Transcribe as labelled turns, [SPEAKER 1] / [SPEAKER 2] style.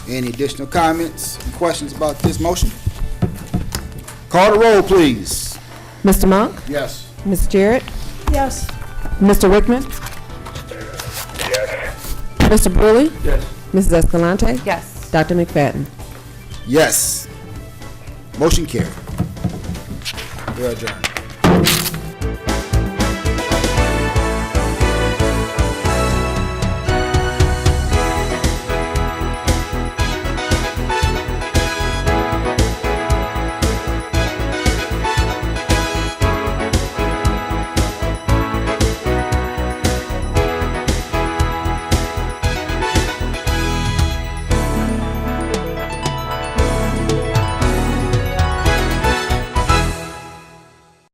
[SPEAKER 1] Any additional comments, and questions about this motion? Call the roll, please.
[SPEAKER 2] Mr. Monk?
[SPEAKER 1] Yes.
[SPEAKER 2] Ms. Jarrett?
[SPEAKER 3] Yes.
[SPEAKER 2] Mr. Wickman? Mr. Brewley?
[SPEAKER 4] Yes.
[SPEAKER 2] Mrs. Escalante?
[SPEAKER 3] Yes.
[SPEAKER 2] Dr. McFadden?
[SPEAKER 1] Yes. Motion carried. We are adjourned.